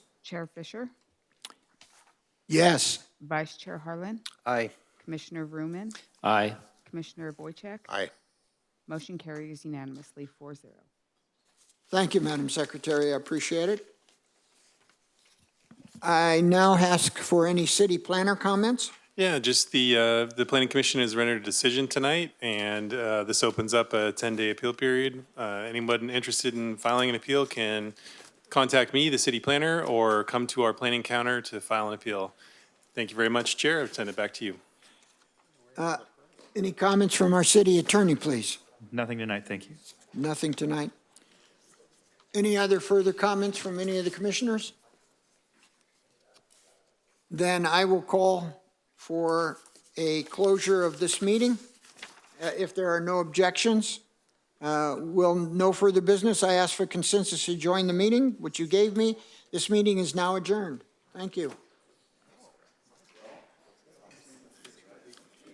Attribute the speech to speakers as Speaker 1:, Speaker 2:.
Speaker 1: Chair Fisher,
Speaker 2: Yes.
Speaker 1: Vice Chair Harlan,
Speaker 3: Aye.
Speaker 1: Commissioner Vrooman,
Speaker 4: Aye.
Speaker 1: Commissioner Boychek.
Speaker 2: Aye.
Speaker 1: Motion carries unanimously, 4-0.
Speaker 2: Thank you, Madam Secretary. I appreciate it. I now ask for any city planner comments.
Speaker 5: Yeah, just the, uh, the planning commission has rendered a decision tonight, and, uh, this opens up a ten-day appeal period. Uh, anyone interested in filing an appeal can contact me, the city planner, or come to our planning counter to file an appeal. Thank you very much, Chair. I'll send it back to you.
Speaker 2: Any comments from our city attorney, please?
Speaker 6: Nothing tonight, thank you.
Speaker 2: Nothing tonight. Any other further comments from any of the commissioners? Then I will call for a closure of this meeting. Uh, If there are no objections, uh, will no further business. I ask for consensus to join the meeting, which you gave me. This meeting is now adjourned. Thank you.